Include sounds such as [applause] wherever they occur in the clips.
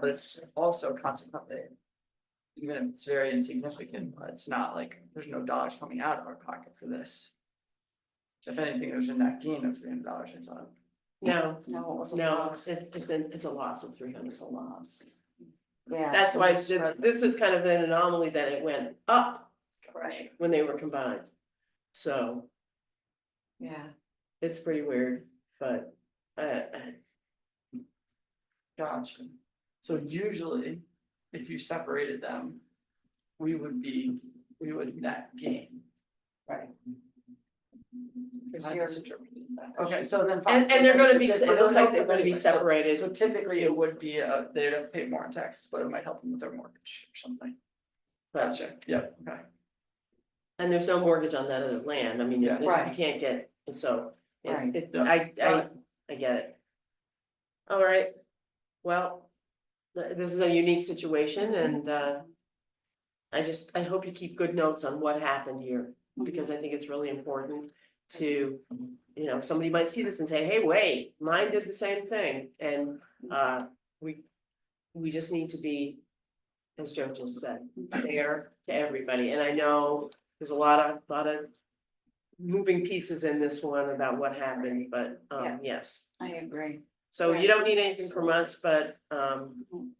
but it's also consequently. Even if it's very insignificant, it's not like, there's no dollars coming out of our pocket for this. If anything, there's a net gain of three hundred dollars, I thought. No, No, it was a no, loss. it's, it's a, it's a loss of three hundred. It's a loss. Yeah. That's why it's it's- this is kind of an anomaly that it went up Right, when they were combined. So yeah, it's pretty weird, but uh, I, I, Gotcha. So usually, if you separated them, we would be, we would net gain. right. I you're- misinterpreted that. Okay, so then. and, and they're gonna be, it looks like they're gonna be separated. So typically it would be, uh, they'd have to pay more in tax, but it might help them with their mortgage or something. but- Gotcha, yeah, okay. And there's no mortgage on that other land. I mean, you Yes. this- you Right. can't get, so Right. it, it- Yeah. I, I, Got I get it. All right, well, th- this is a unique situation and, uh, I just, I hope you keep good notes on what happened here, Mm-hmm. because I think it's really important to, you know, somebody might see this and say, hey, wait, mine did the same thing, and, uh, we, we just need to be, as Joe just said, fair to everybody, and I know there's a lot of, lot of moving pieces in this one about what happened, but, um, Yeah. yes, I agree. so you Right. don't need anything from us, but um. Mhm.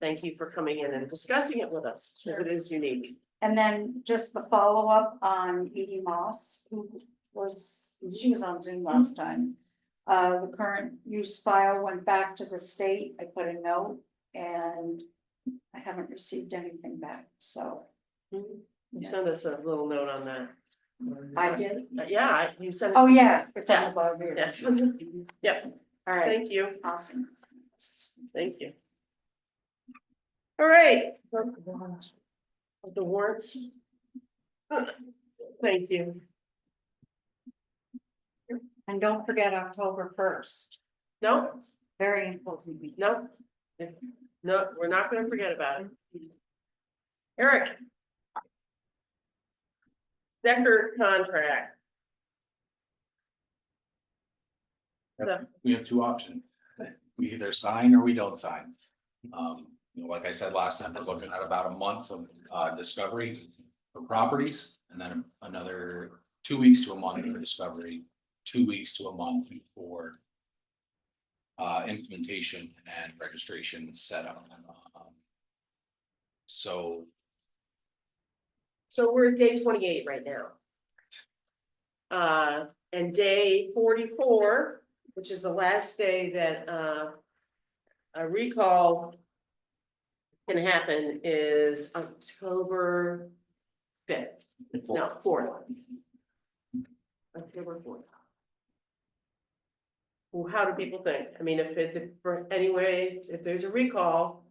Thank you for coming in and discussing it with us, because it is unique. And then just the follow-up on Edie Moss, who was, she was on Zoom last time. Uh, the current use file went back to the state, I put a note, and I haven't received anything back, so You sent us a little note on that. it. I did, But yeah, I- you sent. it- oh, yeah, it's on the bottom here, [laughs] Yeah, all right, thank you, awesome. thank you. All right. The warrants. Thank you. And don't forget October first, No, very important meeting. no. No, we're not gonna forget about it. Eric. Decker contract. we have two options. We either sign or we don't sign. Um, you know, like I said last time, we're looking at about a month of uh discovery for properties and then another two weeks to a month for discovery, two weeks to a month for uh implementation and registration setup. Um, So So we're at day twenty-eight right now. Uh, and day forty-four, which is the last day that, uh, a recall can happen is October fifth, no, fourth. October fourth. Well, how do people think? I mean, if it's, if for anyway, if there's a recall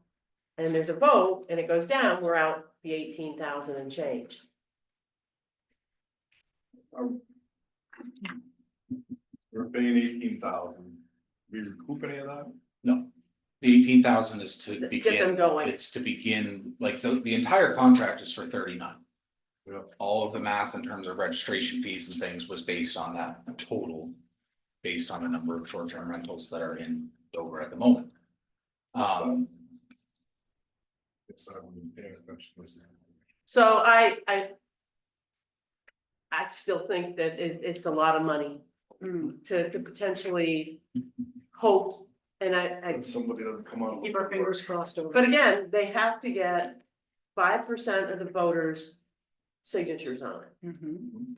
and there's a vote and it goes down, we're out the eighteen thousand and change. We're paying eighteen thousand, we recoup any of that? No, the eighteen thousand is Get to them begin. going. It's to begin, like, the, the entire contract is for thirty-nine. Yeah. All of the math in terms of registration fees and things was based on that total, based on the number of short-term rentals that are in Dover at the moment. Um, It's, I wouldn't pay attention to this. So I, I. I still think that it, it's a lot of money to, to potentially hope, and I, I, If somebody doesn't come out. Keep our fingers crossed over. but again, they have to get. Five percent of the voters' signatures on it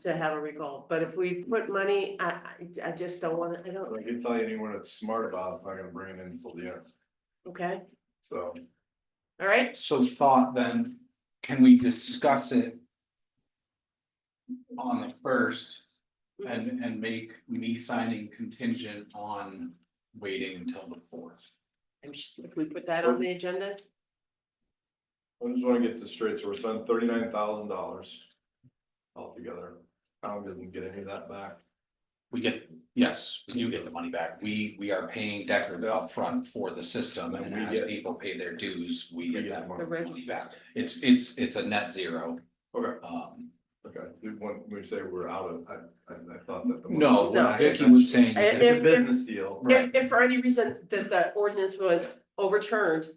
to have a recall, but if we put money, I, I, I just don't wanna, I don't, I can tell you anyone that's smart about it, it's not gonna bring it in until the end, okay, so. all right? so thought then, can we discuss it? On the first and, and make me signing contingent on waiting until the fourth. And sh- If we put that on the agenda, I just wanna get this straight, so we're spending thirty-nine thousand dollars altogether, town doesn't get any of that back. We get, yes, we do get the money back. We, we are paying Decker the upfront for the system and And we as get- people pay their dues, we get that the money. money reg- back. It's, it's, it's a net zero. Okay, Um, okay, when we say we're out of, I, I, I thought that. the- no, No. what Vicky was saying I- is It's if a business deal. Right. if, if for any reason that the ordinance was overturned